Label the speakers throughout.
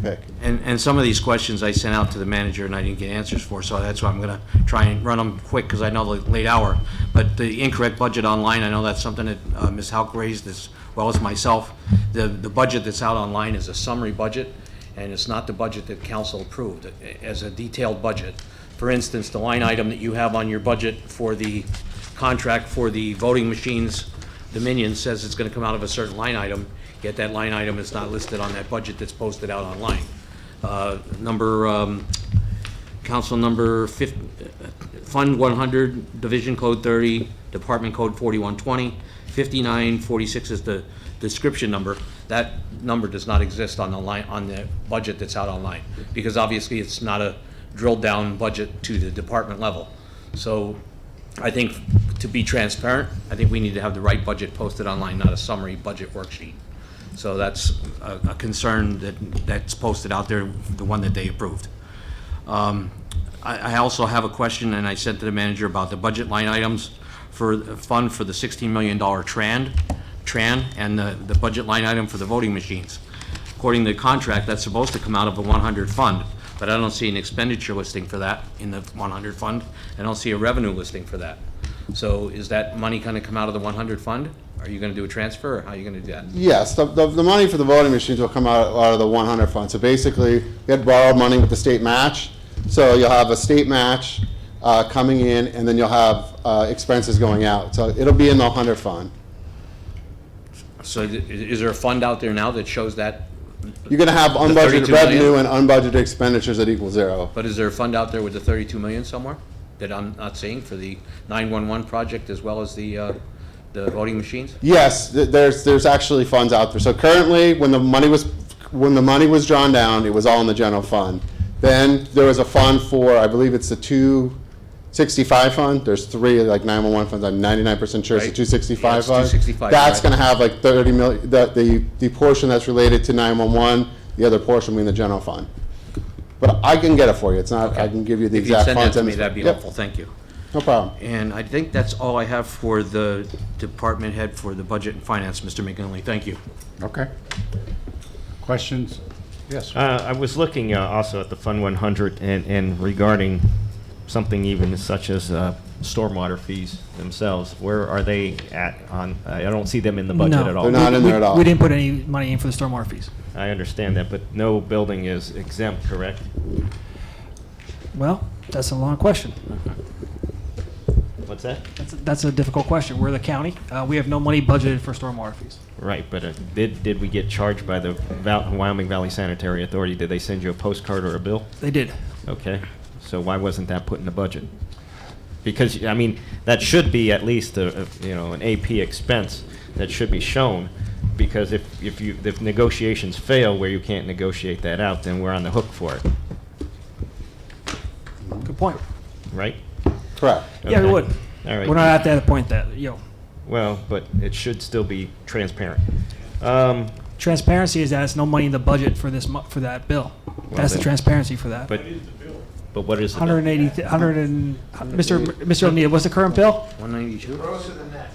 Speaker 1: pick.
Speaker 2: And, and some of these questions I sent out to the manager and I didn't get answers for, so that's why I'm gonna try and run them quick, because I know the late hour. But the incorrect budget online, I know that's something that uh, Ms. Hauk raised as well as myself. The, the budget that's out online is a summary budget, and it's not the budget that council approved, a- as a detailed budget. For instance, the line item that you have on your budget for the contract for the voting machines, Dominion says it's gonna come out of a certain line item, yet that line item is not listed on that budget that's posted out online. Uh, Number, um, council number fif, Fund one hundred, Division Code thirty, Department Code 4120, 5946 is the description number. That number does not exist on the line, on the budget that's out online, because obviously it's not a drilled-down budget to the department level. So I think to be transparent, I think we need to have the right budget posted online, not a summary budget worksheet. So that's a a concern that, that's posted out there, the one that they approved. Um, I, I also have a question, and I sent to the manager about the budget line items for, the fund for the $16 million TRAN, TRAN, and the, the budget line item for the voting machines. According to the contract, that's supposed to come out of the 100 fund, but I don't see an expenditure listing for that in the 100 fund, and I don't see a revenue listing for that. So is that money gonna come out of the 100 fund? Are you gonna do a transfer, or how are you gonna do that?
Speaker 1: Yes, the, the, the money for the voting machines will come out, out of the one hundred fund, so basically, we had borrowed money with the state match, so you'll have a state match, uh, coming in, and then you'll have, uh, expenses going out, so it'll be in the hundred fund.
Speaker 2: So i- is there a fund out there now that shows that?
Speaker 1: You're gonna have unbudgeted
Speaker 2: 32 million?
Speaker 1: revenue and unbudgeted expenditures that equal zero.
Speaker 2: But is there a fund out there with the 32 million somewhere that I'm not seeing for the 911 project as well as the, uh, the voting machines?
Speaker 1: Yes, th- there's, there's actually funds out there. So currently, when the money was, when the money was drawn down, it was all in the general fund. Then there was a fund for, I believe it's the two sixty-five fund. There's three, like nine-one-one funds. I'm ninety-nine percent sure it's the
Speaker 2: Right.
Speaker 1: two
Speaker 2: Yeah,
Speaker 1: sixty-five
Speaker 2: it's
Speaker 1: fund.
Speaker 2: 265,
Speaker 1: That's
Speaker 2: right.
Speaker 1: gonna have like thirty mil, the, the, the portion that's related to nine-one-one, the other portion being the general fund. But I can get it for you. It's not, I can give you the
Speaker 2: If you'd
Speaker 1: exact
Speaker 2: send
Speaker 1: funds.
Speaker 2: that to
Speaker 1: and
Speaker 2: me,
Speaker 1: it's-
Speaker 2: that'd be
Speaker 1: Yep,
Speaker 2: helpful, thank you.
Speaker 1: No problem.
Speaker 2: And I think that's all I have for the department head for the budget and finance, Mr. McGinley, thank you.
Speaker 3: Okay. Questions? Yes.
Speaker 4: Uh, I was looking uh, also at the Fund 100 and, and regarding something even as such as uh, stormwater fees themselves. Where are they at on, I I don't see them in the budget
Speaker 5: No.
Speaker 4: at all.
Speaker 1: They're not in
Speaker 5: We-
Speaker 1: there at all.
Speaker 5: We didn't put any money in for the stormwater fees.
Speaker 4: I understand that, but no building is exempt, correct?
Speaker 5: Well, that's a long question.
Speaker 4: What's that?
Speaker 5: That's, that's a difficult question. We're the county. Uh, we have no money budgeted for stormwater fees.
Speaker 4: Right, but uh, did, did we get charged by the Val- Wyoming Valley Sanitary Authority? Did they send you a postcard or a bill?
Speaker 5: They did.
Speaker 4: Okay, so why wasn't that put in the budget? Because, I mean, that should be at least a, a- you know, an AP expense that should be shown, because if, if you, if negotiations fail where you can't negotiate that out, then we're on the hook for it,
Speaker 5: Good point.
Speaker 4: right?
Speaker 1: Correct.
Speaker 5: Yeah, we
Speaker 4: Okay.
Speaker 5: would.
Speaker 4: All right.
Speaker 5: We're not at that point that, you know,
Speaker 4: Well, but it should still be transparent. Um,
Speaker 5: transparency is that it's no money in the budget for this, mo- for that bill. That's the
Speaker 4: then-
Speaker 5: transparency for that.
Speaker 4: but, but what is the?
Speaker 5: 180, th- 100 and, Mr. M- Mr. O'Neill, what's the current bill?
Speaker 2: 192?
Speaker 6: Gross of the net,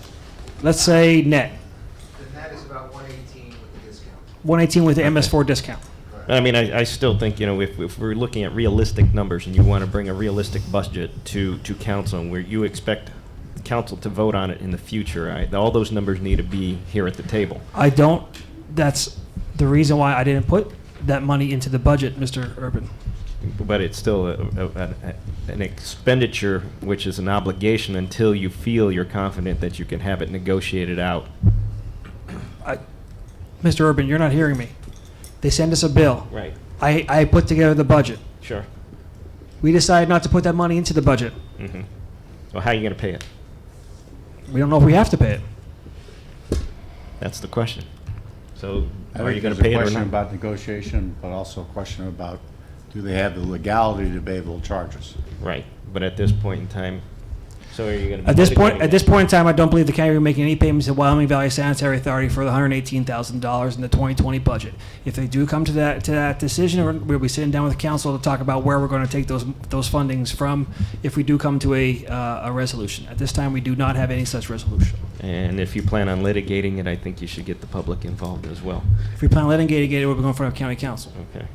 Speaker 5: Let's say net,
Speaker 6: the net is about one eighteen with the discount.
Speaker 5: 118 with the MS4 discount.
Speaker 4: I mean, I, I still think, you know, if, if we're looking at realistic numbers and you want to bring a realistic budget to, to council and where you expect council to vote on it in the future, I, all those numbers need to be here at the table.
Speaker 5: I don't, that's the reason why I didn't put that money into the budget, Mr. Urban.
Speaker 4: But it's still a, a, a- an expenditure, which is an obligation until you feel you're confident that you can have it negotiated out.
Speaker 5: I, Mr. Urban, you're not hearing me. They send us a bill.
Speaker 4: Right.
Speaker 5: I, I put together the budget.
Speaker 4: Sure.
Speaker 5: We decided not to put that money into the budget.
Speaker 4: Mm-hmm. Well, how are you going to pay it?
Speaker 5: We don't know if we have to pay it.
Speaker 4: That's the question. So
Speaker 3: I
Speaker 4: are
Speaker 3: think
Speaker 4: you going
Speaker 3: there's
Speaker 4: to
Speaker 3: a
Speaker 4: pay it or
Speaker 3: question
Speaker 4: not?
Speaker 3: About negotiation, but also a question about, do they have the legality to be able to charge us?
Speaker 4: Right. But at this point in time, so are you going to?
Speaker 5: At this point, at this point in time, I don't believe the county will be making any payments to Wyoming Valley Sanitary Authority for the hundred eighteen thousand dollars in the twenty twenty budget. If they do come to that, to that decision, we're- we'll be sitting down with the council to talk about where we're gonna take those, those fundings from if we do come to a, uh, a resolution. At this time, we do not have any such resolution.
Speaker 4: And if you plan on litigating it, I think you should get the public involved as well.
Speaker 5: If we plan on litigating it, we'll be going in front of county council.
Speaker 4: Okay.